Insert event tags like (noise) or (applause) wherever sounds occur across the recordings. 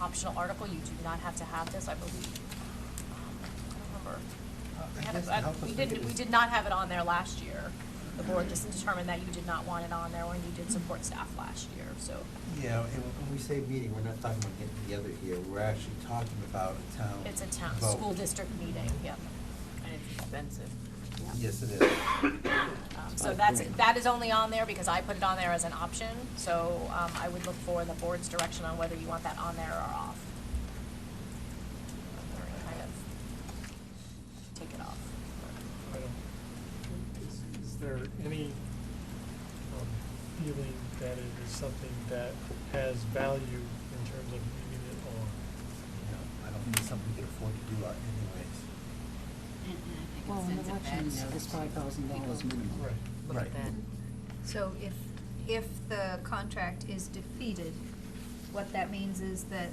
optional article, you do not have to have this, I believe. Um, I don't remember. I We had guess a- it I- helped us We make did, it- we did not have it on there last year. The board just determined that you did not want it on there when you did support staff last year, so. Yeah, and when we say meeting, we're not talking about getting together here, we're actually talking about a town. It's a town, vote. school district meeting, yep. And it's expensive. Yes, it is. (coughs) Um, So that's, that is only on there because I put it on there as an option, so um, I would look for the board's direction on whether you want that on there or off. Or kind of Take it off. I don't, is, is there any um, feeling that it is something that has value in terms of leaving it on? You know, I don't think it's something we can afford to do uh, anyways. Well, in elections, it's five thousand dollars minimum. Right. Look Right. at that. So if, if the contract is defeated, what that means is that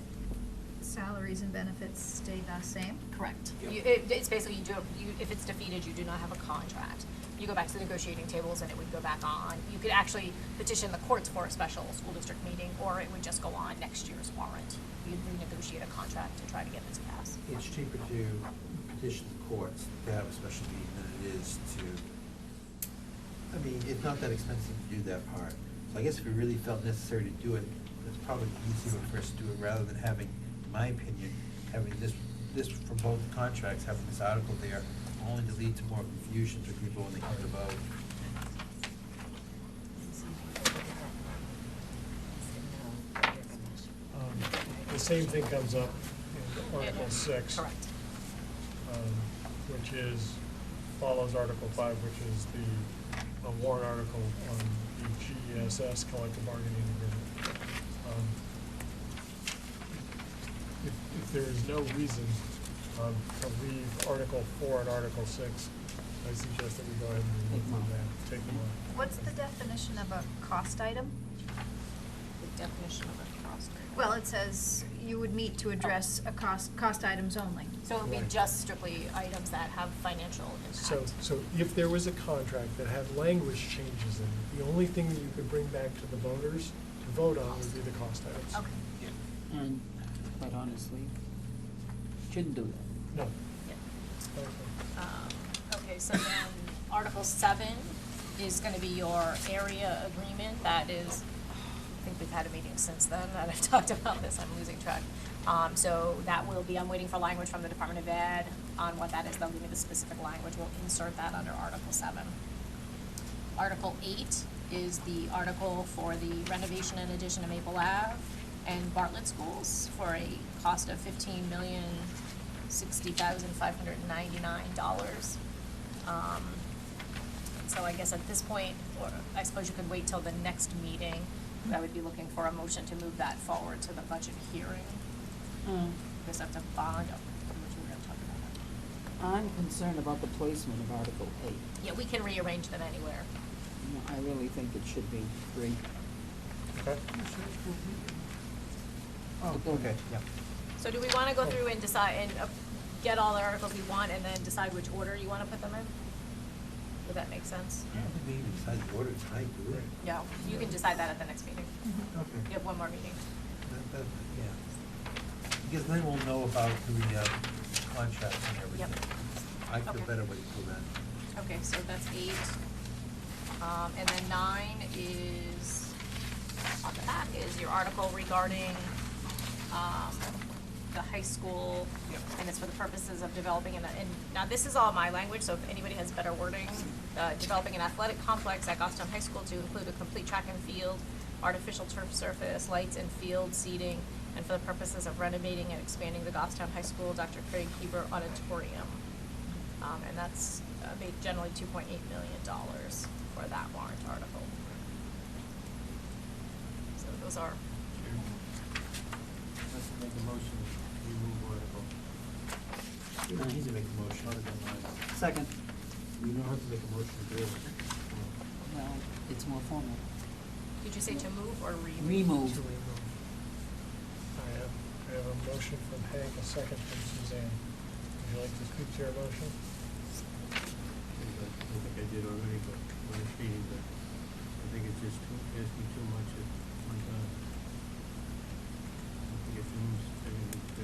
salaries and benefits stay the same? Correct. You, it, it's basically, you do, you, if it's defeated, you do not have a contract. You go back to the negotiating tables and it would go back on. You could actually petition the courts for a special school district meeting, or it would just go on next year's warrant. You'd renegotiate a contract to try to get this passed. It's cheaper to petition the courts to have a special meeting than it is to, I mean, it's not that expensive to do that part. So I guess if we really felt necessary to do it, it's probably easier for us to do it rather than having, in my opinion, having this, this for both contracts, having this article there, only to lead to more confusion for people when they come to vote. Um, The same thing comes up in Article Six. Correct. um, which is, follows Article Five, which is the uh, warrant article on the GESS collective bargaining agreement. Um, If, if there is no reason um, to leave Article Four and Article Six, I suggest that we go ahead and Take them remove out. them, take them out. What's the definition of a cost item? The definition of a cross grade. Well, it says you would meet to address a cost, cost items only. So it would be Right. just strictly items that have financial impact. So, so if there was a contract that had language changes in it, the only thing that you could bring back to the voters to vote on would be the cost items. Okay, And, quite honestly, shouldn't do that. No. yeah. Okay. Um, Okay, so then Article seven is gonna be your area agreement, that is, I think we've had a meeting since then, that I've (laughs) talked about this, I'm losing track. Um, so that will be, I'm waiting for language from the Department of Ed on what that is, they'll give me the specific language, we'll insert that under Article seven. Article eight is the article for the renovation and addition of Maple Ave and Bartlett Schools for a cost of fifteen million sixty thousand five hundred and ninety-nine dollars. Um, so I guess at this point, or I suppose you could wait till the next meeting, but I would be looking for a motion to move that forward to the budget hearing. Because I have to bond, up, which we're gonna talk about. I'm concerned about the placement of Article eight. Yeah, we can rearrange them anywhere. You know, I really think it should be three. Okay. Oh, okay, yeah. So do we want to go through and decide, and uh, get all the articles we want, and then decide which order you want to put them in? Would that make sense? I don't think we even decided the order tonight, do we? No, you can decide that at the next meeting. Okay. You have one more meeting. That- that- Yeah, because then we'll know about the uh, contracts and Yep. everything. I feel Okay. better waiting till then. Okay, so that's eight. Um, and then nine is, on the back is your article regarding, um, the high school. And it's for the purposes of developing an, and now this is all my language, so if anybody has better wording, uh, developing an athletic complex at Goffstown High School to include a complete track and field, artificial turf surface, lights and field seating, and for the purposes of renovating and expanding the Goffstown High School Dr. Craig Heber Auditorium. Um, and that's, uh, made generally two point eight million dollars for that warrant article. So those are, Let's make a motion, we move article. You don't need to make a motion. Second, You don't have to make a motion to do it. well, it's more formal. did you say to move or remove? Remove. to remove. I have, I have a motion from Hank, a second from Suzanne. Would you like to speak to your motion? I don't think I did already, but when it's reading, but I think it's just too, asking too much at one time. I think it moves